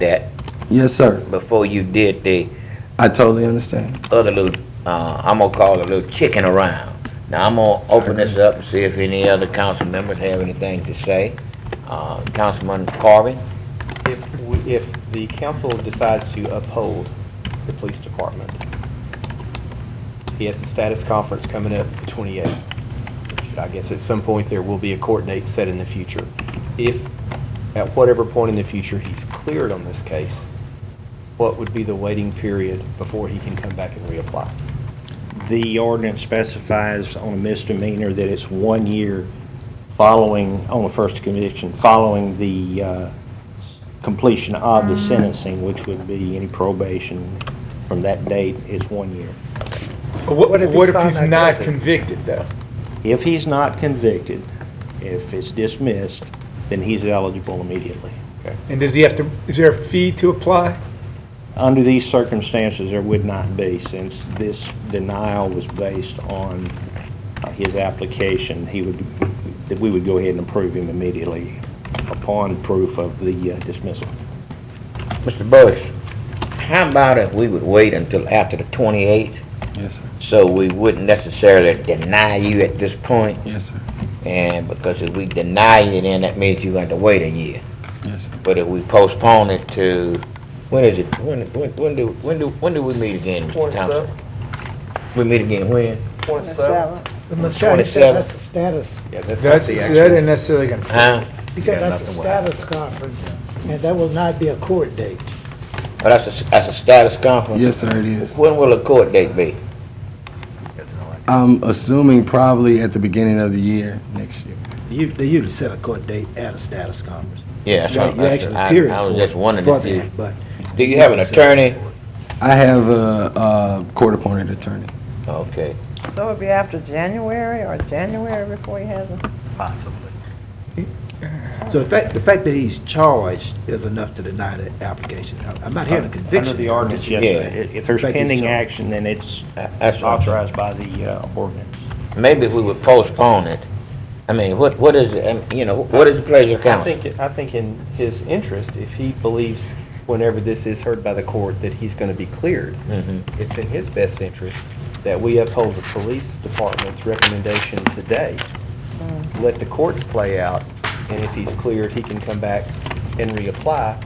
that Yes, sir. before you did the I totally understand. other little, uh, I'm gonna call it a little chicken around. Now, I'm gonna open this up and see if any other council members have anything to say. Uh, Councilman Carvin? If, we- if the council decides to uphold the police department, he has a status conference coming up the 28th. which I guess at some point there will be a court date set in the future. If, at whatever point in the future he's cleared on this case, what would be the waiting period before he can come back and reapply? The ordinance specifies on a misdemeanor that it's one year following, on the first conviction, following the uh, completion of the sentencing, which would be any probation from that date is one year. What, What if he's what if found he's not not guilty? convicted, though? If he's not convicted, if it's dismissed, then he's eligible immediately. And does he have to, is there a fee to apply? Under these circumstances, there would not be, since this denial was based on uh, his application, he would, that we would go ahead and approve him immediately upon proof of the uh, dismissal. Mr. Burris, how about if we would wait until after the 28th, Yes, sir. so we wouldn't necessarily deny you at this point? Yes, sir. And because if we deny you, then that means you're going to wait a year. Yes, sir. But if we postpone it to, when is it, when, when, when do, when do, when do we meet again, Mr. Thompson? We meet again when? Michelle, he said 27. that's a status, Yeah, that's not That's, the that actual. isn't necessarily gonna. Huh? he said Yeah, that's a nothing will happen. status conference, and that will not be a court date. But that's a, that's a status conference? Yes, sir, it is. When will the court date be? I'm assuming probably at the beginning of the year, next year. You, they usually set a court date at a status conference. Yeah, that's You what you I'm- actually that's- appear I, I was in just court wondering for if you, that, but do you have an attorney? I have a, a court-appointed attorney. Okay. So it'll be after January or January before he has a, So the fact, the fact that he's charged is enough to deny the application. I- I'm not hearing a conviction. Under the ordinance, yes. Yeah. If if there's Thank you, pending Mr. Chairman. action, then it's That- Uh, That's what I'm saying. authorized by the uh, ordinance. Maybe if we would postpone it, I mean, what, what is, it? Um, you know, what is the pleasure of I council? think, I think in his interest, if he believes, whenever this is heard by the court, that he's going to be cleared, Mhm. it's in his best interest that we uphold the police department's recommendation today. Mm. Let the courts play out, and if he's cleared, he can come back and reapply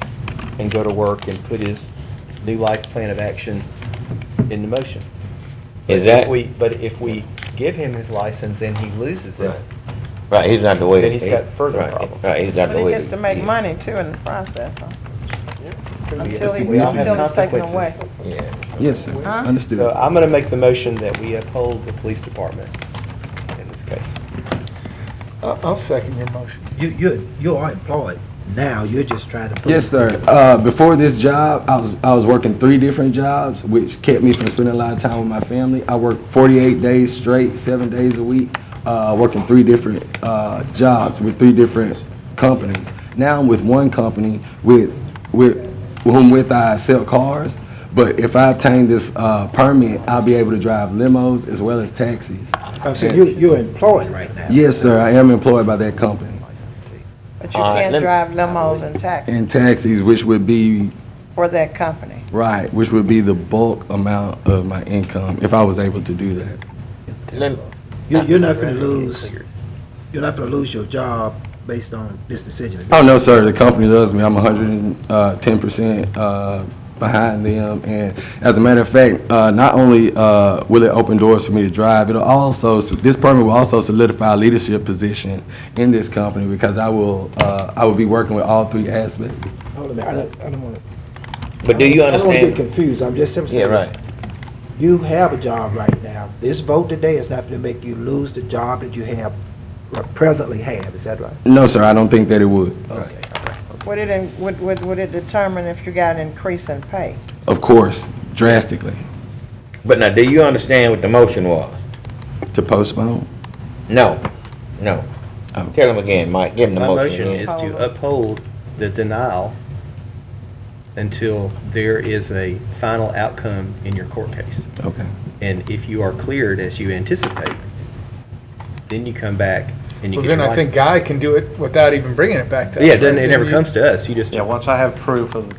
and go to work and put his new life plan of action into motion. Is But if that- we- But if we give him his license and he loses it, Right, he's not the way. Then he's got further right, problems. Right, he's not but the he way. gets to make money too in the process, huh? Until he, we all have until it's taken consequences. away. Yeah. Yes, sir. Huh? Understood. So I'm going to make the motion that we uphold the police department in this case. I'll, I'll second your motion. You, you, you are employed now, you're just trying to. prove- Yes, sir. Uh, before this job, I was, I was working three different jobs, which kept me from spending a lot of time with my family. I worked 48 days straight, seven days a week, uh, working three different uh, jobs with three different companies. Now I'm with one company with, with whom with I sell cars. But if I obtain this uh, permit, I'll be able to drive limos as well as taxis. I'm saying, you, you're employed right now. Yes, sir. I am employed by that company. But you All right, can't let- drive limos and taxis And taxis, which would be for that company. Right, which would be the bulk amount of my income if I was able to do that. Let- You're, you're not gonna lose, you're not gonna lose your job based on this decision. Oh, no, sir, the company loves me. I'm 110% uh, behind them. And as a matter of fact, uh, not only uh, will it open doors for me to drive, it'll also, this permit will also solidify a leadership position in this company because I will, uh, I will be working with all three aspects. Hold a minute, I don't, I don't wanna. But do you I don't wanna get understand? confused, I'm just simply Yeah, saying. right. You have a job right now. This vote today is not going to make you lose the job that you have, or presently have, is that right? No, sir, I don't think that it would. Okay. Would it, in- would, would, would it determine if you got an increase in pay? Of course, drastically, But now, do you understand what the motion was? to postpone. No, no. Oh. Tell him again, Mike, give him the My motion motion again. is to uphold the denial until there is a final outcome in your court case. Okay. And if you are cleared as you anticipate, then you come back and you Well, get your then I think license. Guy can do it without even bringing it back to us. Yeah, it doesn't- right? it never You- comes to us, you just. Yeah, once I have proof of the